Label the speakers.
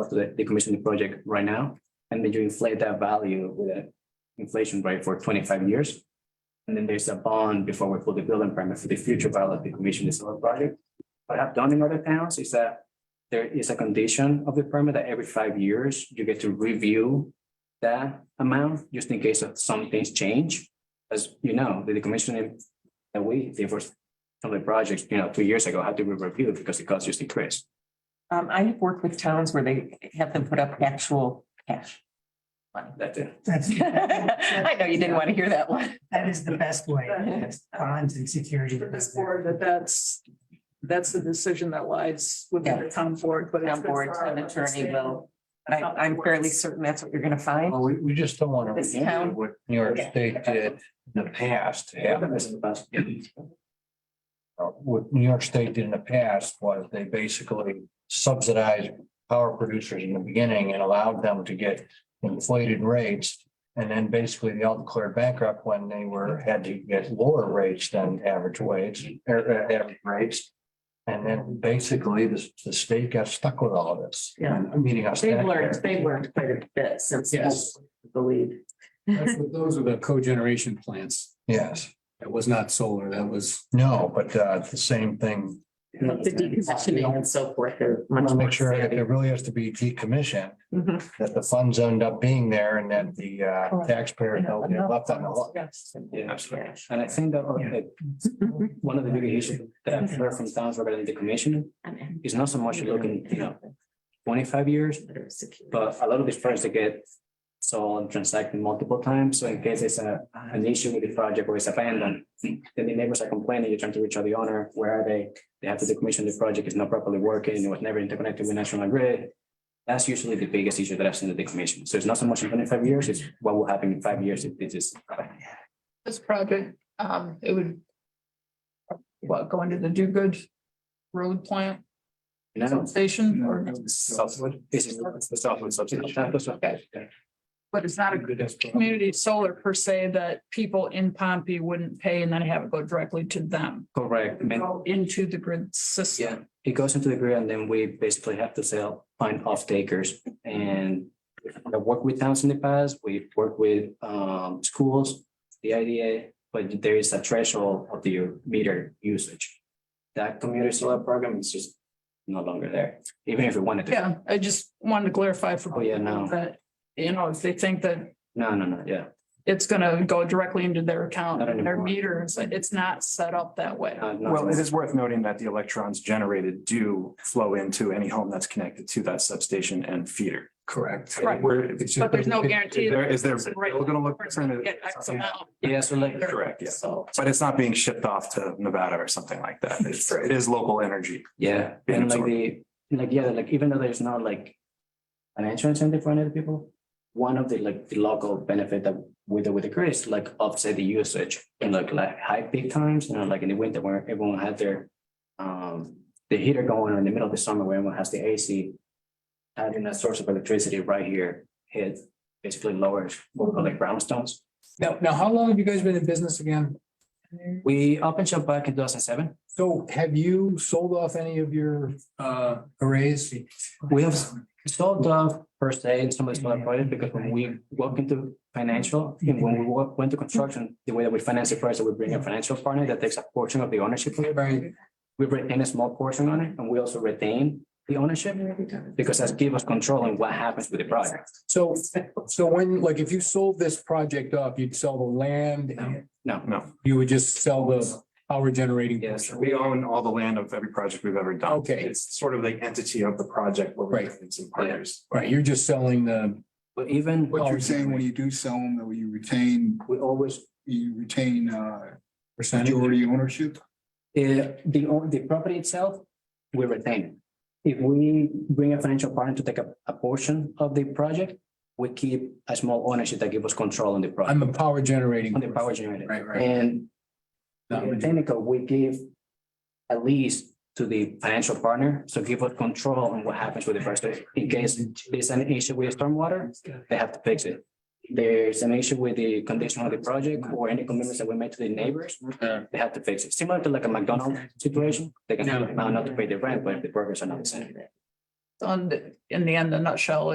Speaker 1: cost of the decommissioning project right now, and then you inflate that value with an inflation rate for twenty-five years. And then there's a bond before we pull the building permit for the future value of the commission is solar project. What I've done in other towns is that there is a condition of the permit that every five years you get to review that amount, just in case of some things change. As you know, the decommissioning that we did for some of the projects, you know, two years ago had to be reviewed because the cost just increased.
Speaker 2: Um, I have worked with towns where they have them put up actual cash.
Speaker 1: That's it.
Speaker 3: That's,
Speaker 2: I know you didn't want to hear that one.
Speaker 3: that is the best way,
Speaker 2: Yes.
Speaker 3: bonds and security.
Speaker 4: for this board, that that's, that's the decision that lies with the town board, but. it's
Speaker 2: Town
Speaker 4: good
Speaker 2: board,
Speaker 4: for our
Speaker 2: town attorney will,
Speaker 4: understanding
Speaker 2: I,
Speaker 4: of how it
Speaker 2: I'm fairly
Speaker 4: works.
Speaker 2: certain that's what you're gonna find.
Speaker 5: Well, we, we just don't want to
Speaker 2: This
Speaker 5: repeat
Speaker 2: town.
Speaker 5: what New York
Speaker 2: Yeah.
Speaker 5: State did in the past.
Speaker 1: Yeah.
Speaker 5: And, uh, What New York State did in the past was they basically subsidized power producers in the beginning and allowed them to get inflated rates. And then basically they all declared bankrupt when they were, had to get lower rates than average wage, or, uh, average rates. And then basically the, the state got stuck with all of this.
Speaker 2: Yeah.
Speaker 5: Meaning us. taxpayers.
Speaker 2: they've learned quite a bit since
Speaker 6: Yes.
Speaker 2: the lead.
Speaker 6: That's what- Those are the cogeneration plants.
Speaker 5: Yes,
Speaker 6: That was not solar, that was.
Speaker 5: no, but, uh, the same thing
Speaker 2: The decommissioning and so forth are much
Speaker 5: I want to
Speaker 2: more
Speaker 5: make sure that
Speaker 2: savvy.
Speaker 5: there really has to be decommission,
Speaker 2: Mhm.
Speaker 5: that the funds end up being there and that the uh,
Speaker 2: Correct.
Speaker 5: taxpayer knows they're left on the hook.
Speaker 2: Yes.
Speaker 1: Yeah.
Speaker 2: Cash.
Speaker 1: And I think that uh, one of the big issues that I've heard from towns regarding the commission
Speaker 2: I'm in.
Speaker 1: is not so much looking, you know, twenty-five years, but a lot of these projects they get sold and transacted multiple times. So in case it's a, an issue with the project or it's abandoned, then the neighbors are complaining, you're trying to reach out the owner, where are they? They have to decommission the project, it's not properly working, it was never interconnected with national grid. That's usually the biggest issue that I've seen in the decommission. So it's not so much in twenty-five years, it's what will happen in five years if this is.
Speaker 4: This project, um, it would. What, go into the do good road plant
Speaker 1: You know?
Speaker 4: station or,
Speaker 1: Southwood. This is the Southwood
Speaker 4: Okay.
Speaker 1: substation.
Speaker 4: but it's not a community solar per se that people in Pompey wouldn't pay and then have it go directly to them.
Speaker 1: Correct. Man,
Speaker 4: Go into the grid
Speaker 1: Yeah,
Speaker 4: system.
Speaker 1: it goes into the grid and then we basically have to sell, find off takers and I worked with towns in the past, we worked with um schools, the IDA, but there is a threshold of the meter usage. That community solar program is just no longer there, even if we wanted to.
Speaker 4: Yeah, I just wanted to clarify for.
Speaker 1: Oh, yeah, no.
Speaker 4: That, you know, if they think that
Speaker 1: No, no, no, yeah.
Speaker 4: it's gonna go directly into their account
Speaker 1: Not
Speaker 4: and their
Speaker 1: anymore.
Speaker 4: meters. It's not set up that way.
Speaker 1: no, Uh, no.
Speaker 7: Well, it is worth noting that the electrons generated do flow into any home that's connected to that substation and feeder.
Speaker 5: Correct.
Speaker 4: Right.
Speaker 7: Where it's
Speaker 4: But
Speaker 7: just-
Speaker 4: there's no guarantee.
Speaker 7: Is there, is there,
Speaker 4: that-
Speaker 7: we're gonna look.
Speaker 4: Get X amount.
Speaker 1: Yeah, so like,
Speaker 7: Correct, yeah.
Speaker 4: So.
Speaker 7: But it's not being shipped off to Nevada or something like that. It's, it is local energy.
Speaker 1: Yeah,
Speaker 7: Being
Speaker 1: and like
Speaker 7: absorbed.
Speaker 1: the, like, yeah, like even though there's not like an insurance incentive for other people, one of the like the local benefit that with the, with the grid is like offset the usage in like like high peak times, you know, like in the winter where everyone had their um the heater going or in the middle of the summer where everyone has the AC. Having a source of electricity right here, it basically lowers what we call like brownstones.
Speaker 6: Now, now, how long have you guys been in business again?
Speaker 1: We opened shop back in two thousand seven.
Speaker 6: So have you sold off any of your uh arrays?
Speaker 1: We have sold off per se in some of the smaller projects because when we walk into financial, and when we walk, went to construction, the way that we finance it first, that we bring a financial partner that takes a portion of the ownership.
Speaker 6: Right.
Speaker 1: We retain a small portion on it and we also retain the ownership because that gives us control on what happens with the project.
Speaker 6: So, so when, like, if you sold this project off, you'd sell the land and
Speaker 1: No,
Speaker 6: you would just sell the power generating.
Speaker 1: yes,
Speaker 7: We own all the land of every project we've ever done.
Speaker 6: Okay.
Speaker 7: It's sort of the entity of the project. where we
Speaker 6: Right.
Speaker 7: have Some partners.
Speaker 6: Right, you're just selling the,
Speaker 1: but even
Speaker 8: What you're saying, when you do sell them, that you retain,
Speaker 1: we always,
Speaker 8: you retain uh
Speaker 6: percentage.
Speaker 8: majority ownership?
Speaker 1: eh, the, own- the property itself, we retain it. If we bring a financial partner to take a, a portion of the project, we keep a small ownership that gives us control on the project.
Speaker 6: I'm the power generating.
Speaker 1: on the power generator.
Speaker 6: Right, right.
Speaker 1: And
Speaker 6: Not
Speaker 1: in
Speaker 6: really.
Speaker 1: technical, we give a lease to the financial partner, so give us control on what happens with the first. In case there's an issue with stormwater, they have to fix it. There's an issue with the condition of the project or any commitments that we made to the neighbors,
Speaker 6: Uh.
Speaker 1: they have to fix it. Similar to like a McDonald's situation, they can
Speaker 6: No.
Speaker 1: now not to pay the rent, but the burgers are not the same.
Speaker 4: on, the- in the end, the nutshell